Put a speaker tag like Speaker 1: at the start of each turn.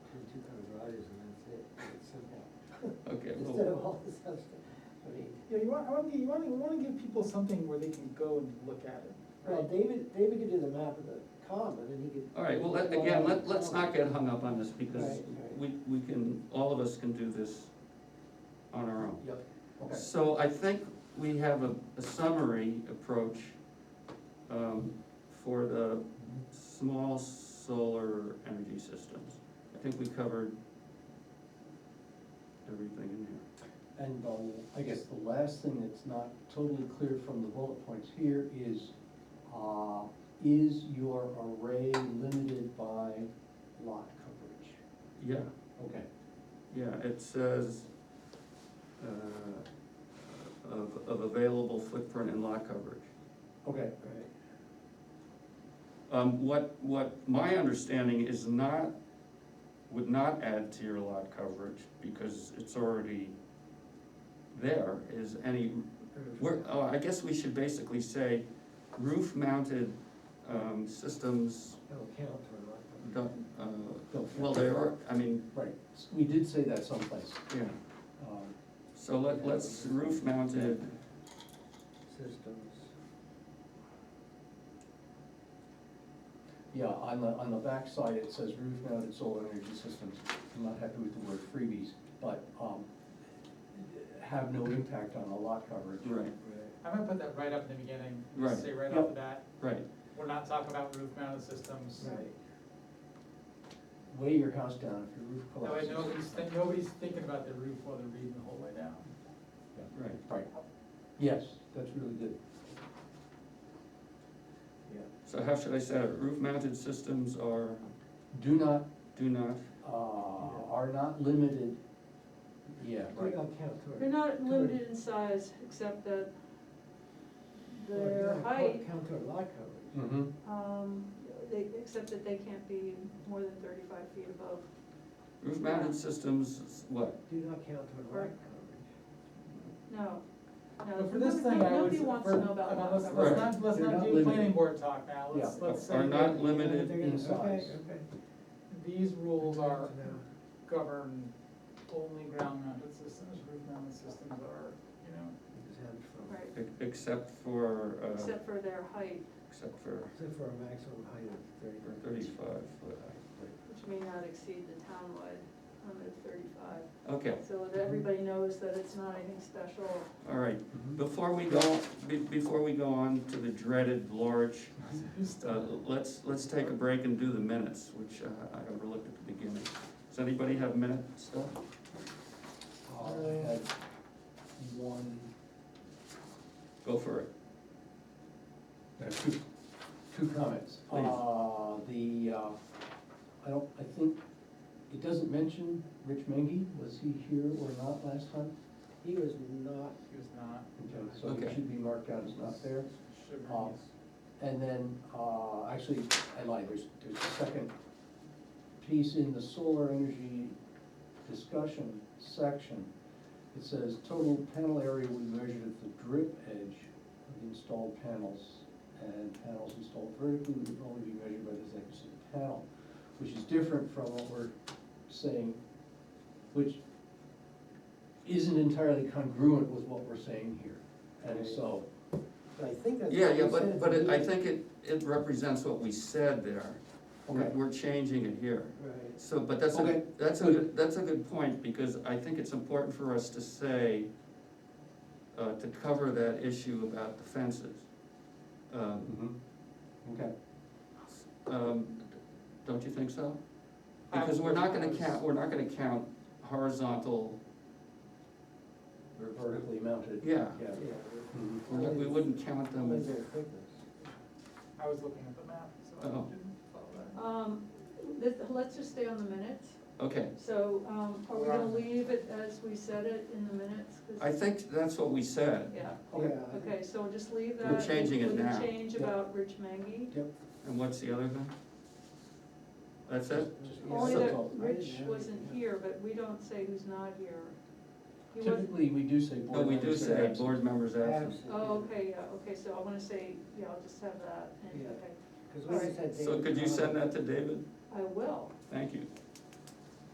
Speaker 1: Yeah, you want, I want, you want, you want to give people something where they can go and look at it,
Speaker 2: Well,
Speaker 1: right?
Speaker 2: David, David could do the map of the common and he could.
Speaker 3: All right, well, let-
Speaker 2: draw
Speaker 3: again,
Speaker 2: out
Speaker 3: let,
Speaker 2: the
Speaker 3: let's
Speaker 2: common.
Speaker 3: not get hung up on this because
Speaker 2: Right, right.
Speaker 3: we, we can, all of us can do this on our own.
Speaker 4: Yep, okay.
Speaker 3: So I think we have a, a summary approach, um, for the small solar energy systems. I think we covered everything in here.
Speaker 4: And um, I guess the last thing that's not totally clear from the bullet points here is, uh, is your array limited by lot coverage?
Speaker 3: Yeah,
Speaker 4: Okay,
Speaker 3: yeah, it says, uh, of, of available footprint and lot coverage.
Speaker 4: okay,
Speaker 2: Right.
Speaker 3: Um, what, what my understanding is not, would not add to your lot coverage, because it's already there, is any, we're, oh, I guess we should basically say roof mounted, um, systems,
Speaker 2: That'll count for a lot.
Speaker 3: don't, uh, well, they are, I mean,
Speaker 4: right, S- we did say that someplace.
Speaker 3: yeah,
Speaker 4: Um,
Speaker 3: so let, let's roof mounted,
Speaker 2: Systems.
Speaker 4: Yeah, on the, on the backside, it says roof mounted solar energy systems. I'm not happy with the word freebies, but um, have no impact on the lot coverage.
Speaker 3: right,
Speaker 1: I might put that right up in the beginning,
Speaker 3: Right.
Speaker 1: say right off
Speaker 4: Yep.
Speaker 1: the bat,
Speaker 3: right,
Speaker 1: we're not talking about roof mounted systems.
Speaker 2: Right.
Speaker 4: Weigh your house down if your roof
Speaker 1: That way
Speaker 4: collapses.
Speaker 1: nobody's, thi- nobody's thinking about the roof while they're reading the whole way down.
Speaker 3: right.
Speaker 4: Right, yes, that's really good.
Speaker 3: So how should I say it, roof mounted systems are,
Speaker 4: Do not,
Speaker 3: do not,
Speaker 4: uh, are not limited, yeah, right,
Speaker 2: That'll count toward.
Speaker 5: They're not limited in size, except that
Speaker 2: well,
Speaker 5: their
Speaker 2: yeah,
Speaker 5: height,
Speaker 2: Count toward lot coverage.
Speaker 3: Hmm.
Speaker 4: mm-hmm,
Speaker 5: um, they, except that they can't be more than thirty-five feet above.
Speaker 3: roof mounted systems, is what?
Speaker 2: Do not count toward lot
Speaker 5: Right.
Speaker 2: coverage.
Speaker 5: No, no.
Speaker 1: But for this thing, I would,
Speaker 5: Nobody
Speaker 1: for,
Speaker 5: wants to know
Speaker 1: I
Speaker 5: about
Speaker 1: mean,
Speaker 5: lot
Speaker 1: let's,
Speaker 5: coverage.
Speaker 1: let's
Speaker 3: Right.
Speaker 1: not, let's
Speaker 4: They're
Speaker 1: not
Speaker 4: not
Speaker 1: do planning
Speaker 4: limited.
Speaker 1: board talk now, let's,
Speaker 4: Yeah.
Speaker 1: let's say
Speaker 3: Are not
Speaker 1: that
Speaker 3: limited
Speaker 2: They're gonna-
Speaker 4: in size.
Speaker 2: Okay, okay.
Speaker 1: these rules are
Speaker 2: Good to know.
Speaker 1: govern only ground mounted systems, roof mounted systems are, you know,
Speaker 2: Exempt from-
Speaker 5: Right,
Speaker 3: Ex- Except for, uh,
Speaker 5: except for their height,
Speaker 3: except for
Speaker 2: Except for a maximum height of thirty.
Speaker 3: for thirty-five foot height.
Speaker 5: which may not exceed the townwide limit of thirty-five.
Speaker 3: Okay,
Speaker 5: So that everybody knows that it's not anything special.
Speaker 3: all right,
Speaker 4: Mm-hmm.
Speaker 3: before we go, be, before we go on to the dreaded large,
Speaker 1: used
Speaker 3: uh,
Speaker 1: to.
Speaker 3: let's, let's take a break and do the minutes, which uh, I overlooked at the beginning. Does anybody have minute stuff?
Speaker 4: uh, had one,
Speaker 3: Go for it.
Speaker 4: uh, two, two comments.
Speaker 3: Please.
Speaker 4: Uh, the, uh, I don't, I think, it doesn't mention Rich Mengy, was he here or not last time?
Speaker 2: He was not,
Speaker 1: He was not.
Speaker 4: Okay, so
Speaker 3: Okay.
Speaker 4: it should be marked out as not there.
Speaker 1: Should
Speaker 4: Uh,
Speaker 1: be.
Speaker 4: And then, uh, actually, I lied, there's, there's a second piece in the solar energy discussion section. It says total panel area we measured at the drip edge of the installed panels, and panels installed vertically would only be measured by the thickness of the panel, which is different from what we're saying, which isn't entirely congruent with what we're saying here. And so,
Speaker 2: but I think that's.
Speaker 3: Yeah,
Speaker 2: what
Speaker 3: yeah,
Speaker 2: he said at
Speaker 3: but, but
Speaker 2: the
Speaker 3: it- I
Speaker 2: meeting.
Speaker 3: think it, it represents what we said there. We're,
Speaker 4: okay,
Speaker 3: we're changing it here.
Speaker 2: Right.
Speaker 3: So, but that's a,
Speaker 4: Okay,
Speaker 3: that's a,
Speaker 4: good.
Speaker 3: good- that's a good point, because I think it's important for us to say, uh, to cover that issue about the fences. Um,
Speaker 4: mhm, okay.
Speaker 3: um, Don't you think so?
Speaker 1: I
Speaker 3: Because we're not gonna
Speaker 1: was-
Speaker 3: count, we're not gonna count horizontal,
Speaker 4: They're vertically mounted.
Speaker 3: yeah,
Speaker 4: Yeah.
Speaker 2: Yeah.
Speaker 4: Mhm.
Speaker 3: We're not- we wouldn't count them.
Speaker 2: Only
Speaker 3: as-
Speaker 2: their thickness.
Speaker 1: I was looking at the map, so I
Speaker 3: Oh.
Speaker 1: didn't follow that.
Speaker 5: Um, let, let's just stay on the minutes.
Speaker 3: Okay,
Speaker 5: So, um, are we gonna leave it as we said it in the minutes? 'Cause-
Speaker 3: I think that's what we said,
Speaker 5: Yeah,
Speaker 4: Okay.
Speaker 2: Yeah.
Speaker 5: okay, so we'll just leave
Speaker 3: We're
Speaker 5: that.
Speaker 3: changing it
Speaker 5: with the
Speaker 3: now.
Speaker 5: Change
Speaker 4: Yep.
Speaker 5: about Rich Mengy.
Speaker 3: and what's the other thing? That's it?
Speaker 4: Just-
Speaker 2: Yeah.
Speaker 5: Only
Speaker 3: So-
Speaker 5: that
Speaker 4: so-
Speaker 5: Rich
Speaker 2: Yeah.
Speaker 5: wasn't here, but we don't say who's not here. He wasn't,
Speaker 4: Typically, we do say
Speaker 3: No,
Speaker 4: board
Speaker 3: we do
Speaker 4: members are
Speaker 3: say
Speaker 4: absent.
Speaker 3: board members absent.
Speaker 2: Absent.
Speaker 5: oh, okay, yeah, okay, so I wanna say, yeah, I'll just have that, and,
Speaker 2: Yeah.
Speaker 5: okay,
Speaker 2: Cause we just had.
Speaker 3: So
Speaker 2: David
Speaker 3: could you send
Speaker 2: Conrad.
Speaker 3: that to David?
Speaker 5: I will.
Speaker 3: Thank you.